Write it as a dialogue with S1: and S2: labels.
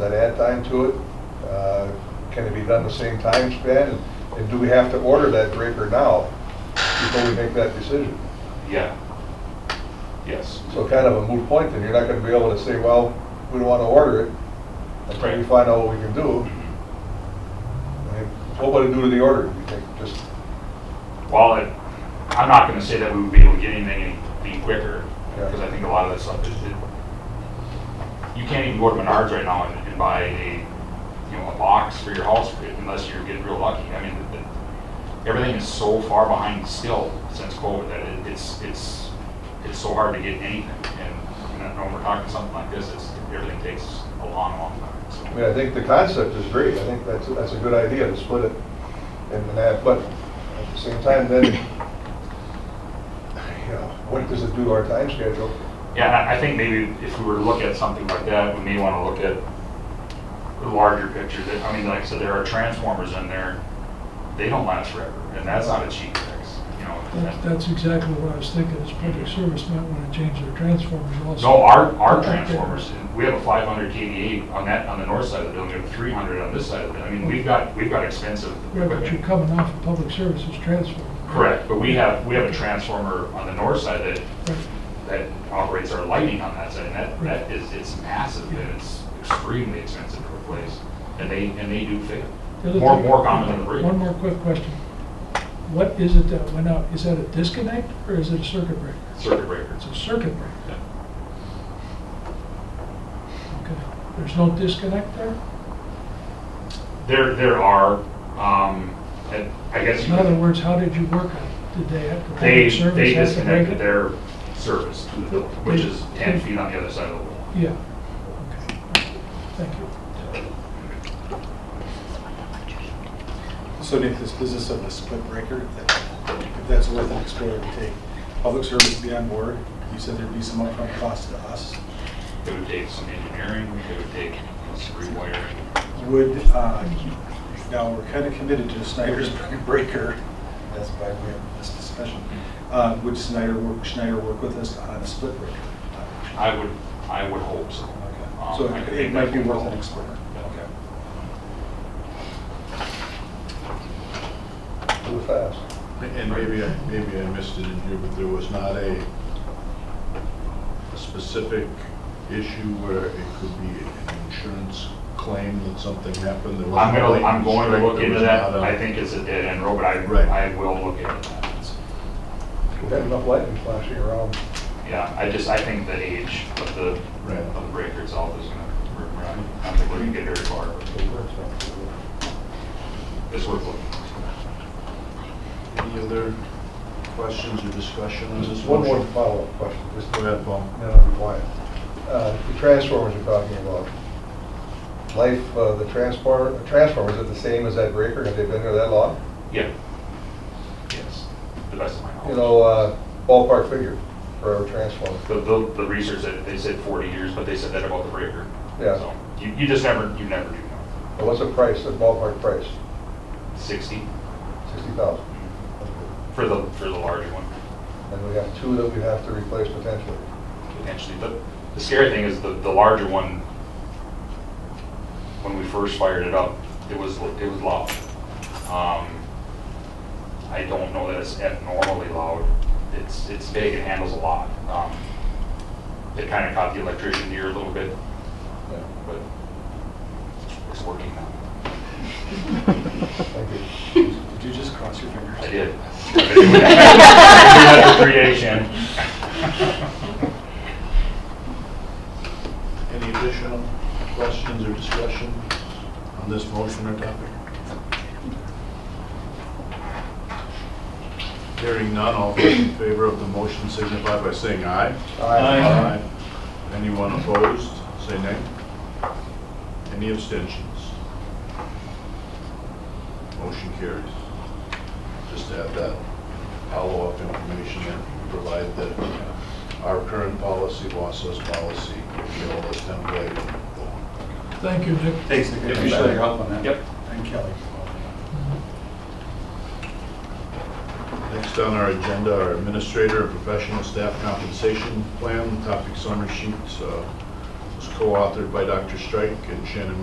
S1: that add time to it? Uh, Can it be done the same time span? And- And do we have to order that breaker now before we make that decision?
S2: Yeah. Yes.
S1: So kind of a moot point, then you're not gonna be able to say, well, we don't wanna order it until we
S2: Right.
S1: find out what we can do. I mean, What would it do to the order, you think? Just,
S2: While it, I'm not gonna say that we would be able to get anything any any quicker,
S1: Yeah.
S2: because I think a lot of that stuff is, it- you can't even go to Menards right now and and buy a, you know, a box for your house unless you're getting real lucky. I mean, the- the- everything is so far behind still since COVID that it- it's, it's, it's so hard to get anything. And, you know, when we're talking something like this, it's, everything takes a long, long time, so.
S1: I mean, I think the concept is great, I think that's, that's a good idea to split it and that, but at the same time, then, you know, what does it do to our time schedule?
S2: Yeah, and I- I think maybe if we were to look at something like that, we may want to look at the larger picture. That I mean, like I said, there are transformers in there, they don't last forever, and that's not a cheap fix, you
S3: That-
S2: know?
S3: That's exactly what I was thinking, is public service might want to change their transformers also.
S2: No, our, our transformers, we have a 500 KVA on that, on the north side of the building, we have 300 on this side of it. I mean, we've got, we've got expensive
S3: Yeah, but you're
S2: equipment.
S3: coming off of public services transformer.
S2: Correct, but we have, we have a transformer on the north side that
S3: Right.
S2: that operates our lighting on that side, and that, that is, it's massive, and it's extremely expensive to replace, and they, and they do fail.
S3: The other
S2: More,
S3: thing-
S2: more common than the break.
S3: One more quick question. What is it that went out? Is that a disconnect or is it a circuit breaker?
S2: Circuit breaker.
S3: It's a circuit breaker.
S2: Yeah.
S3: Okay. There's no disconnect there?
S2: There, there are, um, and I guess.
S3: In
S2: you
S3: other
S2: could-
S3: words, how did you work on it? Did they have
S2: They,
S3: to? public service
S2: they
S3: have to break
S2: disconnected
S3: it?
S2: their service to the building, which is ten feet on the other side of the wall.
S3: Yeah. Okay. Thank you.
S4: So Nick, this business of a split breaker, if that's worth an explorer to take, public service to be on board, you said there'd be some upfront cost to us.
S2: It would take some engineering, it would take some rewiring.
S4: Would, uh, now, we're kind of committed to Snyder's breaker, that's why we have this discussion. Uh, Would Snyder work, Schneider work with us on a split breaker?
S2: I would, I would hope so.
S4: Okay.
S2: Um,
S4: So
S2: I could
S4: it-
S2: make that
S4: it might be
S2: phone
S4: worth
S2: call.
S4: an explorer.
S2: Yeah.
S1: Do it fast.
S5: And maybe, I maybe I missed it in here, but there was not a a specific issue where it could be an insurance claim that something happened. There was
S2: I'm
S5: no
S2: gonna, I'm
S5: lightning
S2: going to
S5: strike,
S2: look
S5: there
S2: into
S5: was
S2: that,
S5: not uh, a-
S2: I think it's a dead end road, but
S5: Right.
S2: I, I will look into that.
S1: We have enough lightning flashing around.
S2: Yeah, I just, I think the age of the,
S5: Right.
S2: of the breaker itself is gonna, we're, we're not, I don't think we're gonna get very far, but it's worth looking.
S5: Any other questions or discussion on this
S1: Just one more
S5: motion?
S1: follow-up question, just
S5: Go
S1: to
S5: ahead, Paul.
S1: then I'll be quiet. Uh, The transformers you're talking about, life, uh, the transport, transformers are the same as that breaker, have they been there that long?
S2: Yeah. Yes, the best of my knowledge.
S1: You know, uh, ballpark figure for a transformer.
S2: The, the, the research, that they said forty years, but they said that about the breaker.
S1: Yeah.
S2: So, You, you just never, you never do know.
S1: And What's the price, the ballpark price?
S2: Sixty
S1: Sixty thousand.
S2: for the, for the larger one.
S1: And we have two that we have to replace potentially.
S2: potentially. But the scary thing is the, the larger one, when we first fired it up, it was, it was loud. Um, I don't know that it's abnormally loud. It's, it's big, it handles a lot. Um, It kind of caught the electrician ear a little bit,
S1: Yeah.
S2: but it's working now.
S1: Thank you.
S4: Did you just cross your fingers?
S2: I did. I've been doing that for Three days, Shannon.
S5: Any additional questions or discussion on this motion or topic? Hearing none, all those in favor of the motion signify by saying aye.
S1: Aye.
S5: Anyone opposed, say nay. Any abstentions? Motion carries. Just to have that follow-up information and provide that our current policy, Wassa's policy, Neola's template.
S3: Thank you, Nick.
S4: Thanks, Nick. I appreciate your help on that.
S2: Yep.
S4: And Kelly.
S5: Next on our agenda, our administrator and professional staff compensation plan, topic summary sheet uh, was co-authored by Dr. Strike and Shannon